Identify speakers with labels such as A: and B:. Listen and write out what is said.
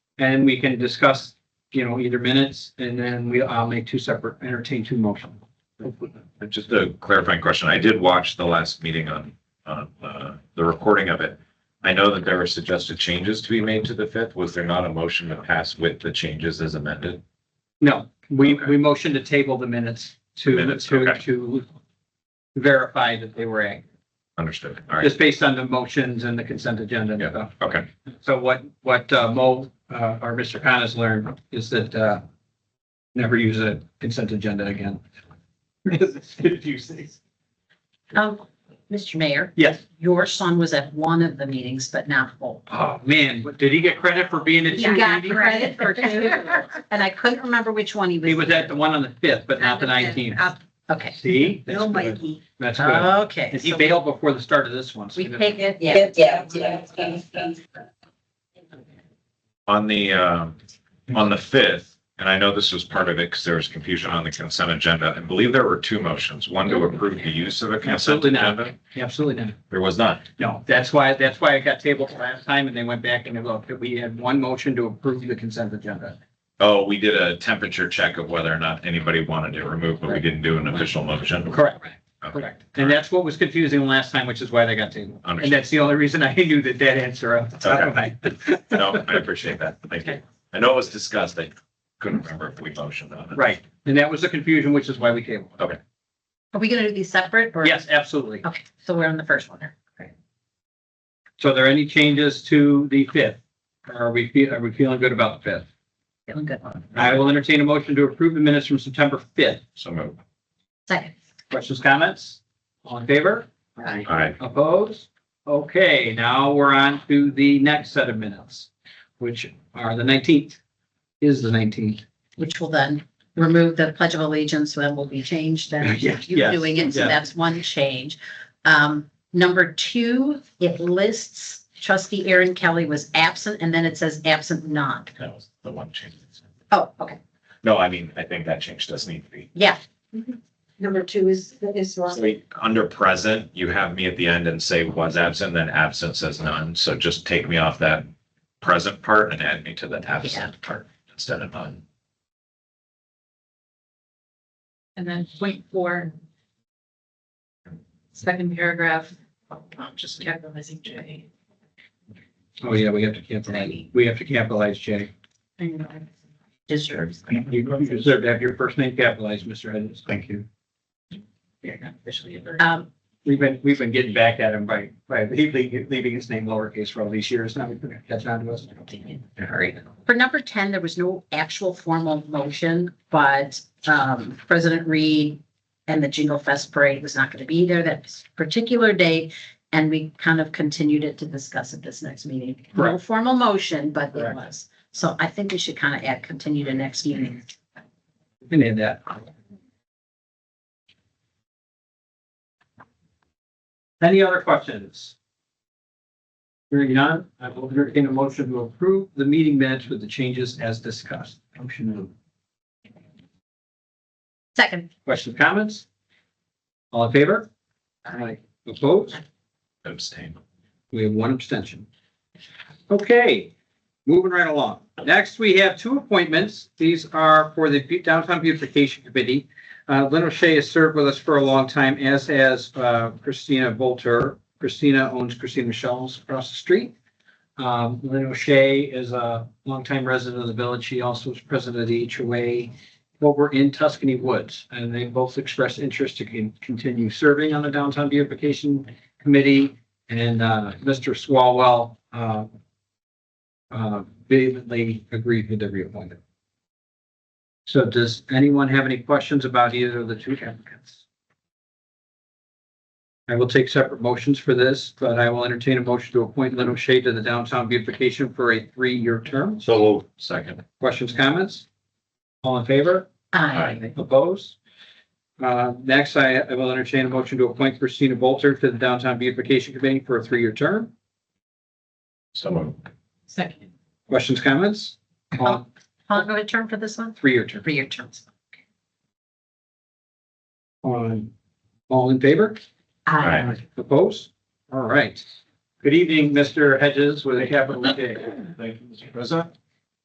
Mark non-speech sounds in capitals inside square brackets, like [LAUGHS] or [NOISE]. A: And we can discuss, you know, either minutes and then we, I'll make two separate, entertain two motions.
B: Just a clarifying question. I did watch the last meeting on, on, uh, the recording of it. I know that there were suggested changes to be made to the fifth. Was there not a motion to pass with the changes as amended?
A: No, we,
B: Okay.
A: we motioned to table the minutes to,
B: Minutes,
A: to,
B: okay.
A: to verify that they were, ac-
B: Understood. All right.
A: just based on the motions and the consent agenda and stuff.
B: Okay.
A: So what, what uh, Mo, uh, or Mr. Khan has learned is that, uh, never use a consent agenda
B: [LAUGHS]
A: again. Because it's confusing.
C: Um, Mr. Mayor,
A: Yes.
C: your son was at one of the meetings, but not both.
A: Oh, man, but did he get credit for being a
C: You got
A: cheerleader?
C: credit for two, and I couldn't remember which one he was.
A: He was at the one on the fifth, but not the nineteenth.
C: Okay,
A: See? That's
D: Bill
A: good.
D: Mikey.
A: That's good.
C: okay.
A: And he
C: so
A: bailed before the start of this one. so
C: We
A: that-
C: take it, yeah.
D: Yeah, yeah, yeah.
B: On the, um, on the fifth, and I know this was part of it because there was confusion on the consent agenda. I believe there were two motions, one to approve the use of a consent
A: Absolutely not.
B: agenda.
A: Absolutely not.
B: There was not.
A: No, that's why, that's why it got tabled last time and they went back and they looked. We had one motion to approve the consent agenda.
B: Oh, we did a temperature check of whether or not anybody wanted it removed, but we didn't do an official motion.
A: Correct.
B: Okay.
A: Correct. And that's what was confusing last time, which is why they got tabled. And
B: Understood.
A: that's the only reason I knew that that answer off the top of my [LAUGHS] head.
B: No, I appreciate that. Thank you. I know it was discussed. I couldn't remember if we motioned on it.
A: Right. And that was the confusion, which is why we tabled. it.
B: Okay.
C: Are we gonna do these separate or?
A: Yes, absolutely.
C: Okay, so we're on the first one there.
A: So are there any changes to the fifth? Or Are we, fe- are we feeling good about the fifth?
C: Feeling good.
A: I will entertain a motion to approve the minutes from September fifth.
B: So moved.
C: Second.
A: Questions, comments? All in favor?
B: All right.
A: Opposed? Okay, now we're on to the next set of minutes, which are the nineteenth, is the nineteenth.
C: Which will then remove the pledge of allegiance, so that will be
A: [LAUGHS]
C: changed then.
A: Yes,
C: You
A: yes,
C: doing it, so
A: yes.
C: that's one change. Um, number two, it lists trustee Aaron Kelly was absent and then it says absent none.
B: That was the one change.
C: Oh, okay,
B: No, I mean, I think that change does need to be.
C: yeah,
D: Mm-hmm. Number two is, is
B: So
D: wrong.
B: we- under present, you have me at the end and say was absent, then absent says none. So just take me off that present part and add me to the absent part instead of none.
E: And then point four. Second paragraph, I'm just capitalizing J.
A: Oh, yeah, we have to capitalize, we have to capitalize Jay.
E: I know.
C: deserves.
A: You you deserve to have your first name capitalized, Mr. Edens. Thank you.
E: You're not officially a bird.
C: Um,
A: We've been, we've been getting back at him by, by leaving, leaving his name lowercase for all these years. Now we can catch on to us.
C: Sorry. For number ten, there was no actual formal motion, but um President Reed and the Jingle Fest Parade was not going to be there that particular day. And we kind of continued it to discuss at this next meeting. No
A: Correct.
C: formal motion, but it
A: Correct.
C: was. So I think we should kind of add continue to next meeting.
A: We Can add that. Any other questions? Hearing none, I will entertain a motion to approve the meeting minutes with the changes as discussed. Motion to
C: Second,
A: Questions, comments? All in favor? Aye. Opposed?
B: Abstain.
A: We have one abstention. Okay, moving right along. Next, we have two appointments. These are for the Bu- Downtown Beautification Committee. Uh, Lynn O'Shea has served with us for a long time, as has uh, Christina Volter. Christina owns Christina Michelle's across the street. Um, Lynn O'Shea is a longtime resident of the village. She also was president of the HOA over in Tuscany Woods, and they both expressed interest to con- continue serving on the Downtown Beautification Committee. And uh, Mr. Swalwell uh, uh, vehemently agreed with the reappointment. So does anyone have any questions about either of the two applicants? I will take separate motions for this, but I will entertain a motion to appoint Lynn O'Shea to the Downtown Beautification for a three-year term.
B: So. Second.
A: Questions, comments? All in favor?
C: aye.
A: Opposed? Uh, next, I, I will entertain a motion to appoint Christina Bolter to the Downtown Beautification Committee for a three-year term.
B: So moved.
E: Second.
A: Questions, comments? All,
C: How long do I term for this one?
A: three-year term.
C: Three-year terms.
A: On, all in favor?
C: Aye.
A: Opposed? All right. Good evening, Mr. Hedges with a capital J.
F: Thank you, Mr. President.